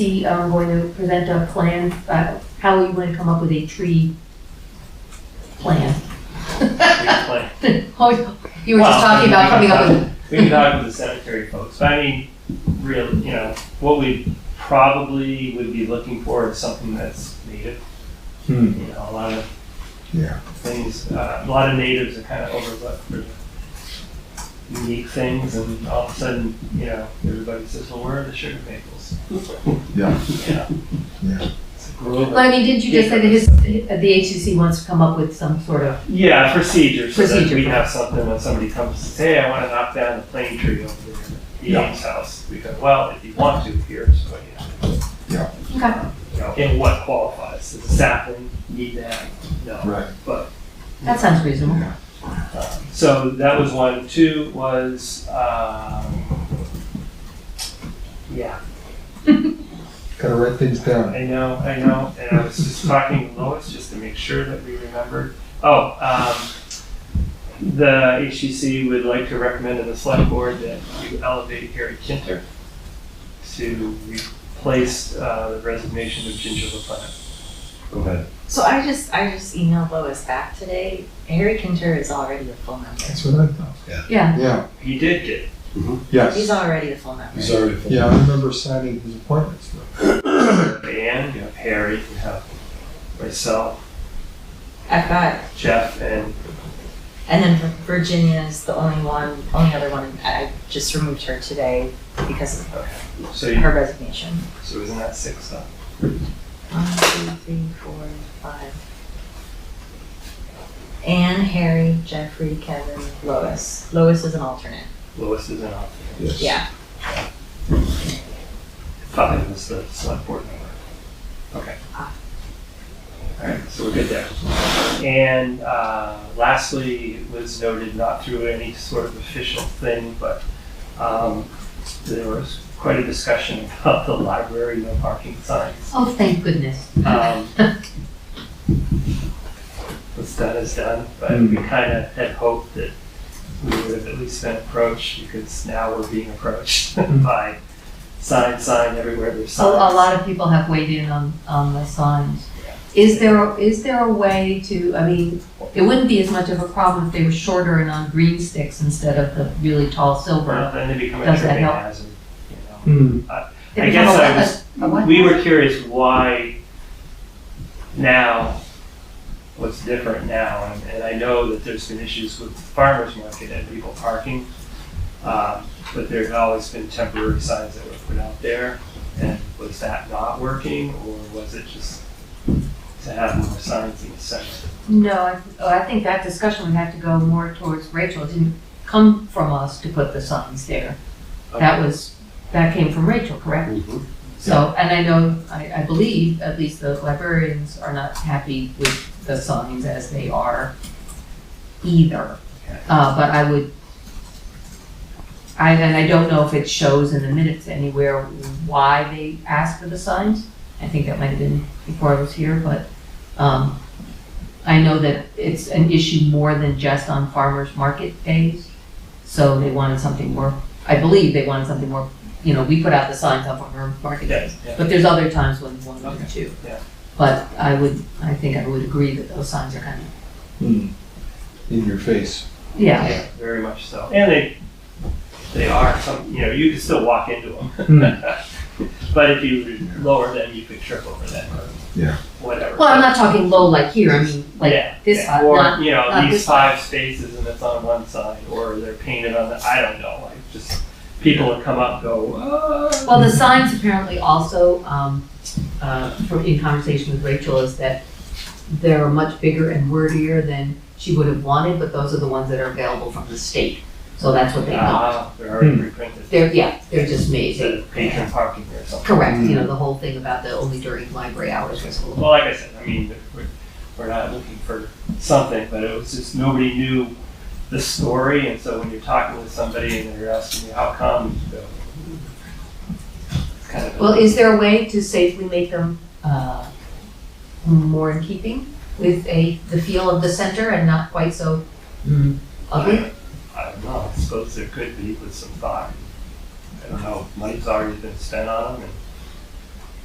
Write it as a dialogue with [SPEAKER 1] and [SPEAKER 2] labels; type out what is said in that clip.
[SPEAKER 1] we are going to um, present a plan, uh, how we want to come up with a tree plan.
[SPEAKER 2] Explain.
[SPEAKER 1] Oh, you were just
[SPEAKER 2] Well,
[SPEAKER 1] talking about
[SPEAKER 2] we
[SPEAKER 1] coming
[SPEAKER 2] can
[SPEAKER 1] up with,
[SPEAKER 2] We can talk with the cemetery folks, but I mean, real, you know, what we probably would be looking for is something that's native. You
[SPEAKER 3] Hmm.
[SPEAKER 2] know, a lot of
[SPEAKER 3] Yeah.
[SPEAKER 2] things, uh, a lot of natives are kind of overlooked for unique things, and all of a sudden, you know, everybody says, well, where are the sugar maples?
[SPEAKER 3] Yeah.
[SPEAKER 2] Yeah.
[SPEAKER 3] Yeah.
[SPEAKER 2] It's a grove.
[SPEAKER 1] well, I mean, didn't you just say that his, the HCC wants to come up with some sort of,
[SPEAKER 2] Yeah, procedure, so that
[SPEAKER 1] Procedure.
[SPEAKER 2] we have something when somebody comes and says, hey, I wanna knock down the plane tree over there at the
[SPEAKER 3] Yeah.
[SPEAKER 2] Ames house. We go, well, if you want to, here's what you have.
[SPEAKER 1] okay,
[SPEAKER 2] You know, and what qualifies, is a sapling, need that, no.
[SPEAKER 3] Right.
[SPEAKER 1] that sounds reasonable.
[SPEAKER 3] Yeah.
[SPEAKER 2] So that was one, two was, um, yeah,
[SPEAKER 3] Gotta write things down.
[SPEAKER 2] I know, I know, and I was just talking to Lois just to make sure that we remembered. Oh, um, the HCC would like to recommend to the select board that you elevate Harry Kinter to replace, uh, the resignation of Ginger LaPlante.
[SPEAKER 4] Go ahead.
[SPEAKER 5] So I just I just emailed Lois back today. Harry Kinter is already a full member.
[SPEAKER 3] That's what I thought.
[SPEAKER 1] Yeah,
[SPEAKER 3] Yeah,
[SPEAKER 2] He did get,
[SPEAKER 5] He's
[SPEAKER 3] yes.
[SPEAKER 5] already a full member.
[SPEAKER 4] He's already.
[SPEAKER 3] Yeah, I remember signing his appointments. though.
[SPEAKER 2] Dan, you have Harry, you have myself,
[SPEAKER 5] I've got
[SPEAKER 2] Jeff, and
[SPEAKER 5] and then Vir- Virginia is the only one, only other one. I just removed her today because of
[SPEAKER 2] so, you-
[SPEAKER 5] her resignation.
[SPEAKER 2] so isn't that six uh, then?
[SPEAKER 5] One, two, three, four, five. Anne, Harry, Jeffrey, Kevin, Lois. Lois is an alternate.
[SPEAKER 2] Lois is an option.
[SPEAKER 4] Yes.
[SPEAKER 5] Yeah.
[SPEAKER 2] Five is the select board member. Okay.
[SPEAKER 5] Ah.
[SPEAKER 2] Alright, so we're good there. And uh, lastly, it was noted, not through any sort of official thing, but um, there was quite a discussion about the library no parking signs.
[SPEAKER 1] oh, thank goodness.
[SPEAKER 2] Um, What's done is done, but we kind of had hoped that we would have at least been approached because now we're being approached by sign, sign everywhere there's
[SPEAKER 1] So
[SPEAKER 2] signs.
[SPEAKER 1] a lot of people have weighed in on, on the signs. Is there, is there a way to, I mean, it wouldn't be as much of a problem if they were shorter and on green sticks instead of the really tall silver.
[SPEAKER 2] Well, then they become a
[SPEAKER 1] Does that
[SPEAKER 2] tripping
[SPEAKER 1] help?
[SPEAKER 2] hazard, you know.
[SPEAKER 3] Hmm,
[SPEAKER 1] They
[SPEAKER 2] I
[SPEAKER 1] become
[SPEAKER 2] guess
[SPEAKER 1] a-
[SPEAKER 2] I was-
[SPEAKER 1] a- a what?
[SPEAKER 2] We were curious why now, what's different now, and, and I know that there's been issues with farmer's market and people parking. Um, but there's always been temporary signs that were put out there, and was that not working, or was it just to have more signs in the center?
[SPEAKER 1] No, I, oh, I think that discussion would have to go more towards Rachel. It didn't come from us to put the signs there. That was, that came from Rachel, correct?
[SPEAKER 4] Mhm.
[SPEAKER 1] So, and I know, I, I believe, at least the librarians are not happy with the signs as they are either.
[SPEAKER 2] Okay.
[SPEAKER 1] Uh, but I would, I, and I don't know if it shows in the minutes anywhere why they asked for the signs. I think that might have been before I was here, but, um, I know that it's an issue more than just on farmers market days. So they wanted something more, I believe they wanted something more, you know, we put out the signs on farmers market days.
[SPEAKER 2] Yeah, yeah.
[SPEAKER 1] But there's other times when one or two.
[SPEAKER 2] yeah.
[SPEAKER 1] But I would, I think I would agree that those signs are kind of,
[SPEAKER 3] Hmm. In your face.
[SPEAKER 1] yeah,
[SPEAKER 2] Very much so, and they, they are, some, you know, you can still walk into them.
[SPEAKER 3] Hmm.
[SPEAKER 2] But if you were lower them, you could trip over them or
[SPEAKER 3] Yeah.
[SPEAKER 2] whatever.
[SPEAKER 1] well, I'm not talking low like here, I mean, like
[SPEAKER 2] yeah,
[SPEAKER 1] this
[SPEAKER 2] yeah.
[SPEAKER 1] side,
[SPEAKER 2] or
[SPEAKER 1] not-
[SPEAKER 2] you know
[SPEAKER 1] not
[SPEAKER 2] these
[SPEAKER 1] this
[SPEAKER 2] five spaces and it's on one side, or they're painted on the. I don't know. Like just people would come up and go. "Ah."
[SPEAKER 1] Well, the signs apparently also, um, uh, from, in conversation with Rachel, is that they're much bigger and wordier than she would have wanted, but those are the ones that are available from the state. So that's what they got.
[SPEAKER 2] Ah, they're already
[SPEAKER 3] Hmm.
[SPEAKER 2] reprinted.
[SPEAKER 1] They're, yeah, they're just
[SPEAKER 2] Instead
[SPEAKER 1] amazing.
[SPEAKER 2] of patron parking or something.
[SPEAKER 1] Correct, you know, the whole thing about the only during library hours was a little.
[SPEAKER 2] Well, like I said, I mean, we're, we're not looking for something, but it was just nobody knew the story, and so when you're talking with somebody and they're asking you how come, you go. It's kind of.
[SPEAKER 1] Well, is there a way to safely make them, uh, more in keeping with a, the feel of the center and not quite so mm, ugly?
[SPEAKER 2] I don't know, I suppose there could be with some thought. I don't know, money's already been spent on them and